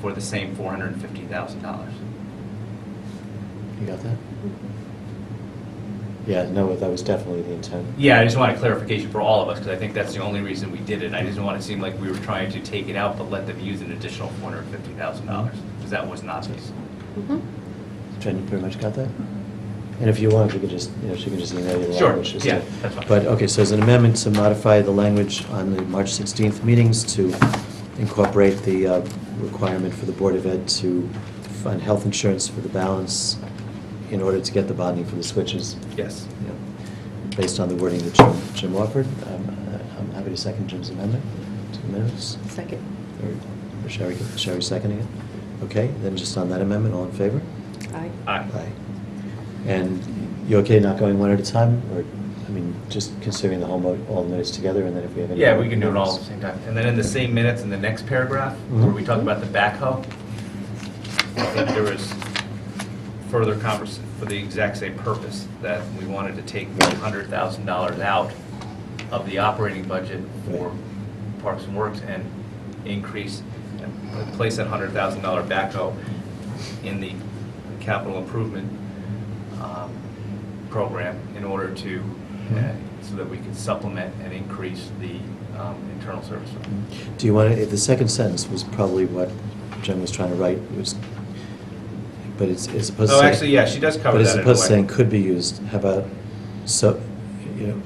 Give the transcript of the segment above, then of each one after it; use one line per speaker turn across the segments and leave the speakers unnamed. for the same four hundred and fifty thousand dollars.
You got that? Yeah, no, that was definitely the intent.
Yeah, I just wanted clarification for all of us, because I think that's the only reason we did it. I didn't want it to seem like we were trying to take it out, but let them use an additional four hundred and fifty thousand dollars, because that was not the case.
Mm-hmm.
Jen, you pretty much got that? And if you want, we could just, you know, she can just email you the
Mm-hmm. Sure,
language. just to-
yeah, that's fine.
But, okay, so as an amendment to modify the language on the March 16th meetings to incorporate the uh, requirement for the Board of Ed to fund health insurance for the balance in order to get the bonding for the switches.
Yes.
you know, Based on the wording that Jim, Jim offered, Um, I- I'm happy to second Jim's amendment to the minutes.
Second.
Or Sherry, Sherry seconding it? Okay, then just on that amendment, all in favor?
Aye.
Aye.
And you okay not going one at a time, or, I mean, just considering the whole, mo- all the minutes together, and then if we have any...
Yeah, we can do it all at the same time. And then in the same minutes, in the next paragraph, where we talk about the backhoe, I think there was further convers, for the exact same purpose, that we wanted to take one hundred thousand dollars out of the operating budget for Parks and Works and increase, and place that hundred thousand dollar backhoe in the capital improvement um, program in order to, uh, so that we can supplement and increase the um, internal service fund.
Do you want to, the second sentence was probably what Jen was trying to write, it was, but it's it's supposed to
Oh,
say...
actually, yeah, she does cover
But it's
that in a
supposed to
way.
say, could be used, how about, so, you know,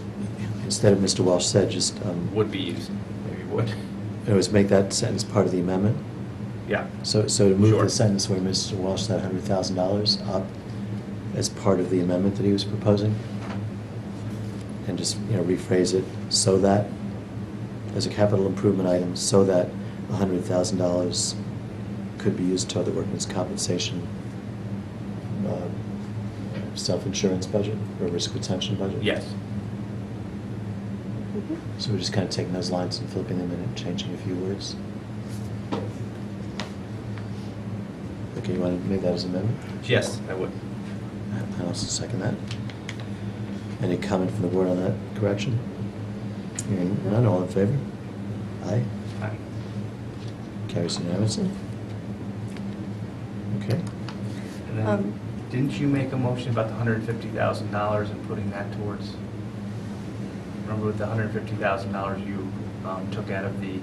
instead of Mr. Walsh said, just, um,
Would be used, maybe would.
it was make that sentence part of the amendment?
Yeah,
So, so to move
Sure.
the sentence where Mr. Walsh said hundred thousand dollars up as part of the amendment that he was proposing? And just, you know, rephrase it, so that, as a capital improvement item, so that hundred thousand dollars could be used toward the workman's compensation, uh, self-insurance budget or risk retention budget?
yes.
So we're just kind of taking those lines and flipping them in and changing a few words? Okay, you want to make that as an amendment?
Yes, I would.
I also second that. Any comment from the board on that correction? Hearing none, all in favor? Aye,
Aye.
carries unanimously. Okay,
And then,
Um,
didn't you make a motion about the hundred and fifty thousand dollars and putting that towards? Remember with the hundred and fifty thousand dollars you um, took out of the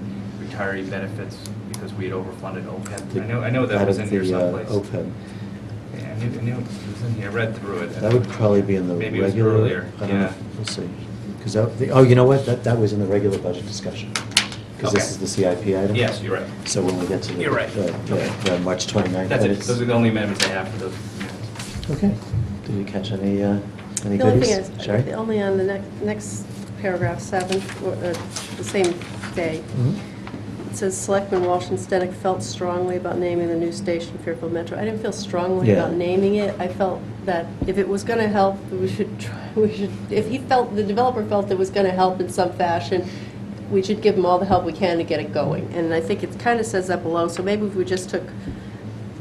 retiree benefits because we had overfunded OPEB? I know, I know that
Out
was
of
in here
the, uh,
someplace.
OPEB.
Yeah, I knew, I knew it was in here, I read through it.
That would probably be in the
uh, Maybe it
regular.
was earlier,
I don't know.
yeah.
Let's see, because that, the- oh, you know what, that, that was in the regular budget discussion. Because
Okay.
this is the CIP item.
Yes, you're right.
So when we get to the.
You're right.
the-
Okay.
The the March 29th.
That's it,
minutes.
those are the only amendments I have for those minutes.
Okay. Did you catch any, uh, any
The only
goodies?
thing is,
Sherry?
only on the next, next paragraph, seven, or, uh, the same day,
Mhm.
it says, "Selectman Walsh and Stenick felt strongly about naming the new station Fairfield Metro." I didn't feel strongly
Yeah.
about naming it. I felt that if it was going to help, we should, try we should, if he felt, the developer felt it was going to help in some fashion, we should give him all the help we can to get it going. And I think it kind of says that below, so maybe if we just took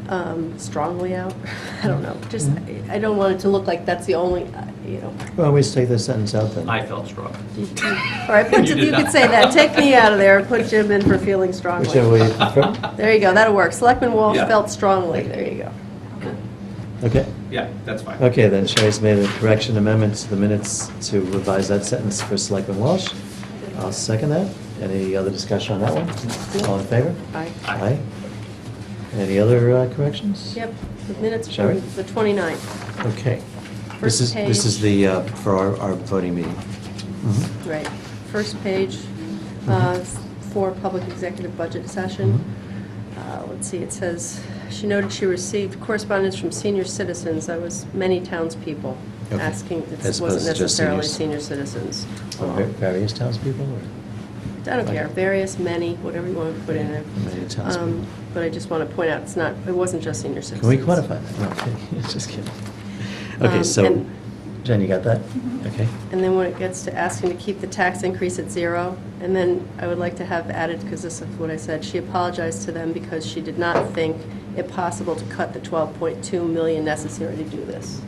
um, strongly out, I don't know, just,
Mhm.
I don't want it to look like that's the only, uh, you know.
Well, we just take this sentence out then.
I felt strong.
All right, put-
You
you
did
could
not.
say that, take me out of there, and put Jim in for feeling
Whichever way
strongly.
you prefer.
There you go, that'll work. Selectman Walsh
Yeah.
felt strongly, there you go.
Okay.
Yeah, that's fine.
Okay, then Sherry's made a correction amendment to the minutes to revise that sentence for Selectman Walsh. I'll second that. Any other discussion on that one? All in favor?
Aye.
Aye.
Any other uh, corrections?
Yep, the minutes
Shall we?
from the 29th,
Okay. This
First
is, this is
page.
the, uh, for our, our voting meeting. Mhm.
right. First page, uh, for public executive budget session.
Mm-hmm.
Uh, Let's see, it says, she noted she received correspondence from senior citizens, that was many townspeople
Okay.
asking, it
As opposed
wasn't
to just
necessarily senior
seniors.
citizens.
From
Um,
va- various townspeople, or?
I don't care, various, many, whatever you want to put in there.
Many times.
Um, But I just want to point out, it's not, it wasn't just senior citizens.
Can we quantify that? No, okay, just kidding. Okay,
Um,
so,
and- Mm-hmm.
Jen, you got that? Okay.
And then when it gets to asking to keep the tax increase at zero, and then I would like to have added, because this is what I said, she apologized to them because she did not think it possible to cut the 12.2 million necessary to do this.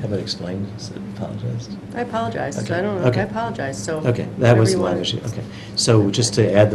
How about explained, instead of apologized?
I apologize, I
Okay,
don't know,
okay.
I apologize, so.
Okay, that
whatever
was
you
the
want.
language, okay. So just to add the